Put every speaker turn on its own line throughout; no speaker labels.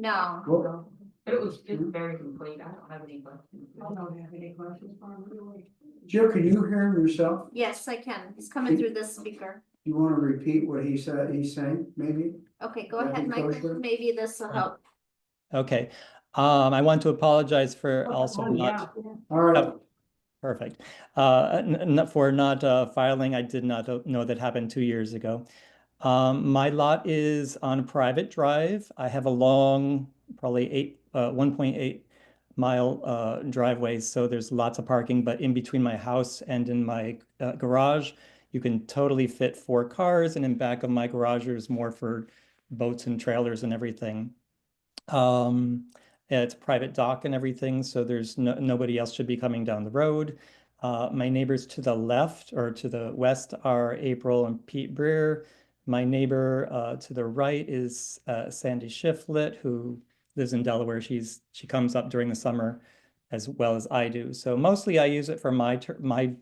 No.
Cool.
But it was, it's very complete, I don't have any questions.
I don't have any questions for him.
Jill, can you hear him yourself?
Yes, I can. It's coming through this speaker.
You wanna repeat what he said, he's saying, maybe?
Okay, go
That'd
ahead,
be
Michael.
kosher.
Maybe this will help.
Okay, um, I want to apologize
Oh,
for also not,
All right,
Yep. perfect. Uh, n- n- not- for not, uh, filing, I did not uh, know that happened two years ago. Um, my lot is on a private drive. I have a long, probably eight, uh, one point eight mile, uh, driveway, so there's lots of parking, but in between my house and in my, uh, garage, you can totally fit four cars, and in back of my garage, there's more for boats and trailers and everything. Um, yeah, It's a private dock and everything, so there's no, nobody else should be coming down the road. Uh, my neighbors to the left or to the west are April and Pete Breer. My neighbor uh, to the right is uh, Sandy Shiflet, who lives in Delaware. She's she comes up during the summer, as well as I do. So mostly I use it for my tur my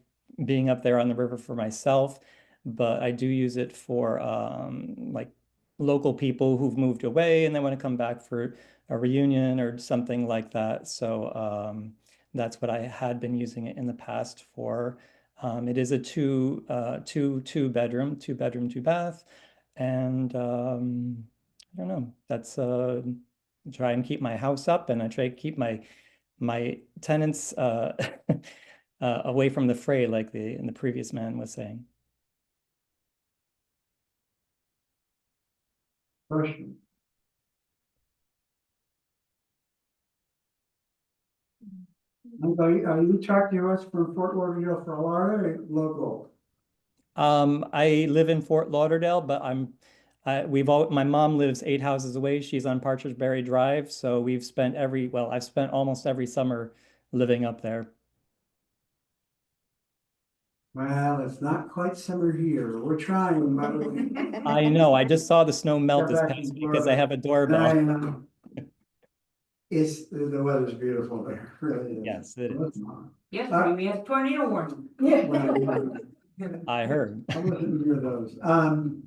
being up there on the river for myself, but I do use it for um, like local people who've moved away and they want to come back for a reunion or something like that. So um, that's what I had been using it in the past for. Um, it is a two, uh, two, two bedroom, two bedroom, two bath, and um, I don't know. That's uh, try and keep my house up, and I try to keep my my tenants uh, uh, away from the fray, like the the previous man was saying.
question. And Are you, are uh, you talking to us from Fort Lauderdale, Florida, or local?
Um, I live in Fort Lauderdale, but I'm, I, we've all, my mom lives eight houses away. She's on Partridge Berry Drive, so we've spent every, well, I've spent almost every summer living up there.
Well, it's not quite summer here, we're trying, by the way.
I know, I just saw the snow melt this
back in
past week because
Florida.
I have a
I
doorbell.
know. It's, the the weather's beautiful there, really is.
Yes, it is.
It's not.
Yes, I mean, we have tornado warning.
Well,
I heard.
I wasn't aware of those. Um.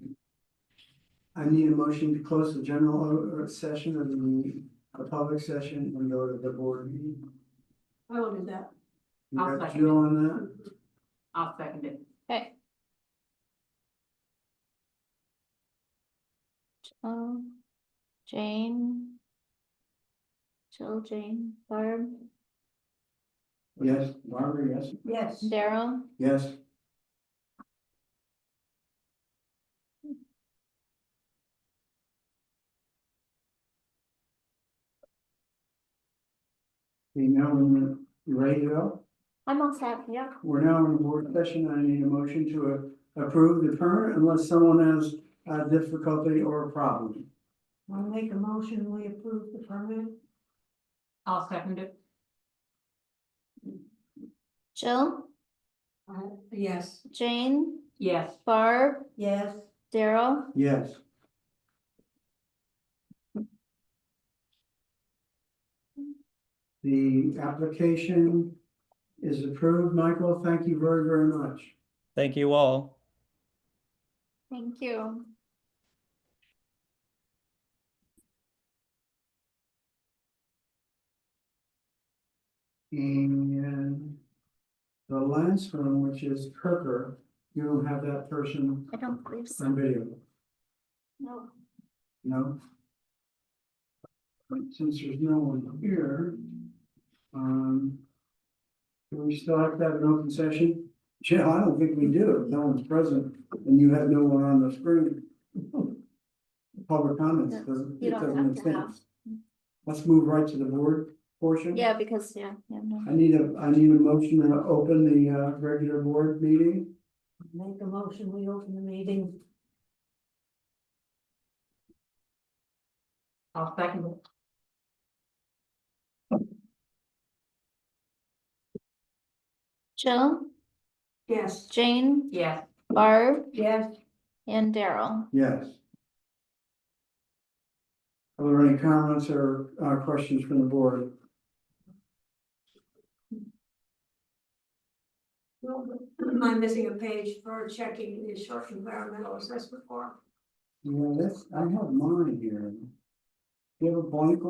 I need a motion to close the general uh, session and the, the public session and go to the board meeting.
I will do that.
You
I'll
got
second
Jill on that?
I'll second it.
Okay. Jill, Jane. Jill, Jane, Barb,
Yes, Barbara, yes,
Yes.
Daryl,
yes. Okay, now we're you ready to go?
I'm all set, yeah.
We're now in board session. I need a motion to a- approve the permit unless someone has uh difficulty or a problem.
I'll make a motion, we approve the permit.
I'll second it.
Jill,
Uh, Yes.
Jane,
Yes,
Barb,
Yes.
Daryl,
Yes. The application is approved. Michael, thank you very, very much.
Thank you all.
thank you.
And the last one, which is Kirker, you don't have that person
I don't believe so,
on video,
no.
no? But since there's no one here, um, do we still have to have an open session? Jill, I don't think we do. If no one's present and you have no one on the screen. Public comments doesn't,
You
it
don't
doesn't make
have to have.
sense. Let's move right to the board portion.
Yeah, because, yeah, yeah, no.
I need a, I need a motion to open the uh regular board meeting.
Make a motion, we open the meeting.
I'll second it.
Jill,
Yes.
Jane,
Yes,
Barb,
Yes.
and Daryl.
Yes. Are there any comments or uh questions from the board?
Am I missing a page for checking the short environmental assessment form?
Yeah, that's, I have mine here. Do you have a blank